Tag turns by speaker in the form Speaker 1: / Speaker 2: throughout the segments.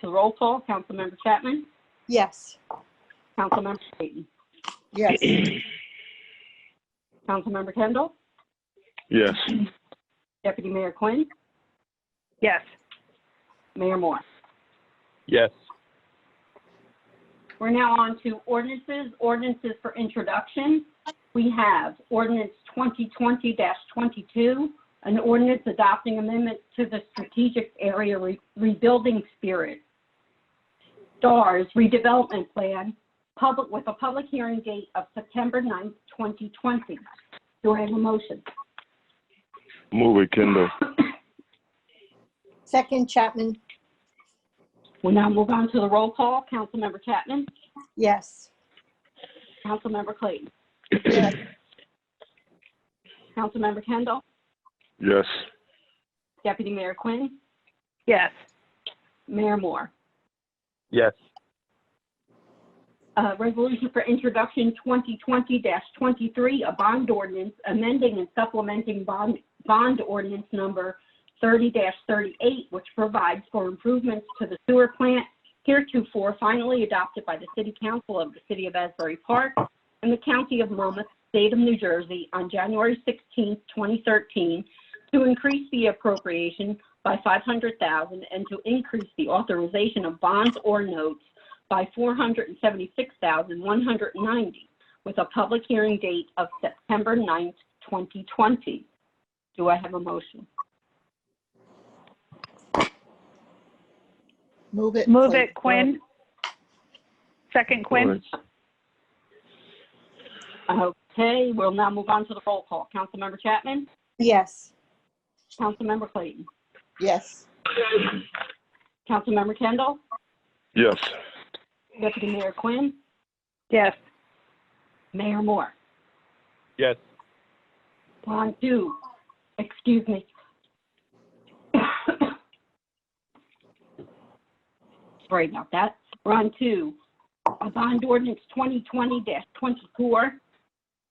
Speaker 1: to roll call, Councilmember Chapman,
Speaker 2: Yes.
Speaker 1: Councilmember Clayton,
Speaker 2: Yes.
Speaker 1: Councilmember Kendall,
Speaker 3: Yes.
Speaker 1: Deputy Mayor Quinn,
Speaker 4: Yes.
Speaker 1: Mayor Moore.
Speaker 3: Yes.
Speaker 1: We're now on to ordinances, ordinances for introduction. We have ordinance 2020-22, an ordinance adopting amendments to the Strategic Area Re- Rebuilding Spirit, STARS redevelopment plan, public, with a public hearing date of September 9th, 2020. Do I have a motion?
Speaker 3: Move it, Kendall.
Speaker 2: Second Chapman,
Speaker 1: We'll now move on to the roll call. Councilmember Chapman?
Speaker 2: yes.
Speaker 1: Councilmember Clayton?
Speaker 2: Yes.
Speaker 1: Councilmember Kendall?
Speaker 3: Yes.
Speaker 1: Deputy Mayor Quinn?
Speaker 4: Yes.
Speaker 1: Mayor Moore?
Speaker 3: Yes.
Speaker 1: Uh, Resolution for Introduction 2020-23, a bond ordinance amending and supplementing bond, bond ordinance number 30-38, which provides for improvements to the sewer plant heretofore finally adopted by the City Council of the City of Asbury Park and the County of Monmouth, State of New Jersey, on January 16, 2013, to increase the appropriation by 500000 and to increase the authorization of bonds or notes by 476,190, with a public hearing date of September 9th, 2020. Do I have a motion?
Speaker 2: Move it.
Speaker 4: Move
Speaker 2: Clayton.
Speaker 4: it, Quinn. Second, Quinn.
Speaker 1: Okay, we'll now move on to the roll call. Councilmember Chapman?
Speaker 2: Yes.
Speaker 1: Councilmember Clayton?
Speaker 2: Yes.
Speaker 1: Councilmember Kendall?
Speaker 3: Yes.
Speaker 1: Deputy Mayor Quinn?
Speaker 4: Yes.
Speaker 1: Mayor Moore?
Speaker 3: Yes.
Speaker 1: On to, excuse me. Sorry about that. We're on to a bond ordinance 2020-24.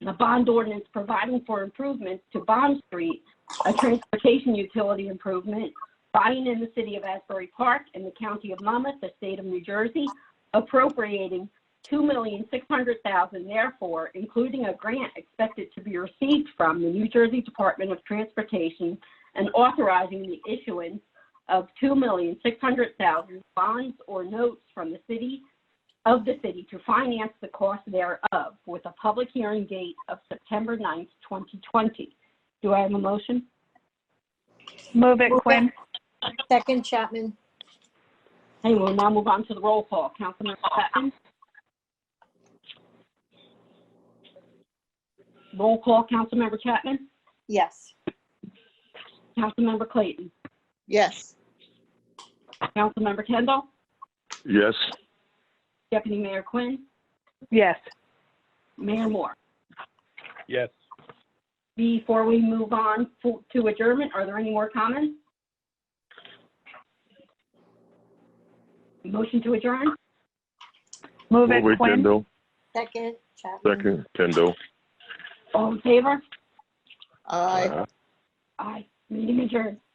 Speaker 1: The bond ordinance providing for improvements to Bond Street, a transportation utility improvement buying in the city of Asbury Park and the county of Monmouth, the state of New Jersey, appropriating two million six hundred thousand, therefore, including a grant expected to be received from the New Jersey Department of Transportation and authorizing the issuance of two million six hundred thousand bonds or notes from the city of the city to finance the cost thereof with a public hearing date of September 9th, twenty twenty. Do I have a motion?
Speaker 4: Move it, Quinn.
Speaker 2: Second Chapman,
Speaker 1: Hey, we'll now move on to the roll call. Councilmember Chapman? Roll call, Councilmember Chapman?
Speaker 2: yes.
Speaker 1: Councilmember Clayton?
Speaker 2: Yes.
Speaker 1: Councilmember Kendall?
Speaker 3: Yes.
Speaker 1: Deputy Mayor Quinn?
Speaker 4: Yes.
Speaker 1: Mayor Moore?
Speaker 3: Yes.
Speaker 1: Before we move on fo- to adjournment, are there any more comments? Motion to adjourn?
Speaker 4: Move
Speaker 3: Move
Speaker 4: it,
Speaker 3: it,
Speaker 4: Quinn.
Speaker 3: Kendall.
Speaker 2: Second Chapman.
Speaker 3: Second, Kendall.
Speaker 1: All in favor?
Speaker 3: Aye.
Speaker 1: Aye. Meeting adjourned.